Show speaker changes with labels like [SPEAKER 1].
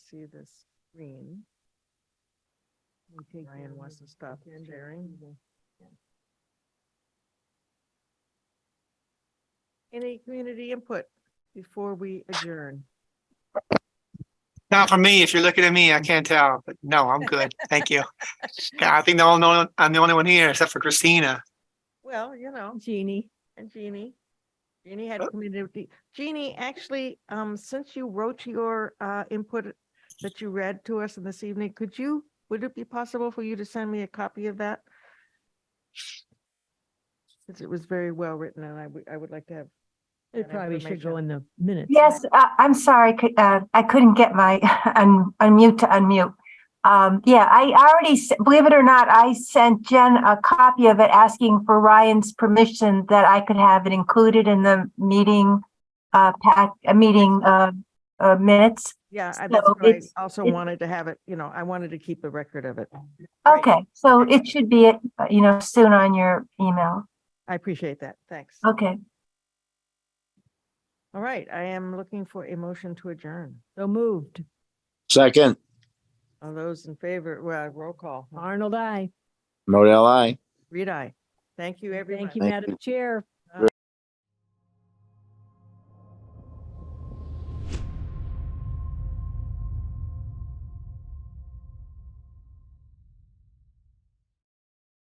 [SPEAKER 1] see the screen. Ryan wants to stop sharing. Any community input before we adjourn?
[SPEAKER 2] Not for me. If you're looking at me, I can't tell, but no, I'm good. Thank you. Yeah, I think the only, I'm the only one here except for Christina.
[SPEAKER 1] Well, you know,
[SPEAKER 3] Jeannie.
[SPEAKER 1] and Jeannie. Jeannie had
[SPEAKER 2] Oh.
[SPEAKER 1] community, Jeannie, actually, um, since you wrote your uh input that you read to us in this evening, could you, would it be possible for you to send me a copy of that? Since it was very well written and I would, I would like to have.
[SPEAKER 3] It
[SPEAKER 1] that
[SPEAKER 3] probably should
[SPEAKER 1] information.
[SPEAKER 3] go in the minutes.
[SPEAKER 4] Yes, uh, I'm sorry, cou- uh, I couldn't get my un- unmute to unmute. Um, Yeah, I already, s- believe it or not, I sent Jen a copy of it asking for Ryan's permission that I could have it included in the meeting, uh, pack, uh, meeting uh, uh, minutes.
[SPEAKER 1] Yeah, I-
[SPEAKER 4] So
[SPEAKER 1] that's what I
[SPEAKER 4] it's-
[SPEAKER 1] also
[SPEAKER 4] it's-
[SPEAKER 1] wanted to have it, you know, I wanted to keep a record of it.
[SPEAKER 4] Okay, so it should be, uh, you know, soon on your email.
[SPEAKER 1] I appreciate that. Thanks.
[SPEAKER 4] Okay,
[SPEAKER 1] All right, I am looking for a motion to adjourn.
[SPEAKER 3] So moved.
[SPEAKER 5] Second,
[SPEAKER 1] All those in favor, well, roll call.
[SPEAKER 3] Arnold, I.
[SPEAKER 5] Model I.
[SPEAKER 1] Reed, I. Thank you, everyone.
[SPEAKER 3] Thank you,
[SPEAKER 5] Thank
[SPEAKER 3] Madam
[SPEAKER 5] you.
[SPEAKER 3] Chair.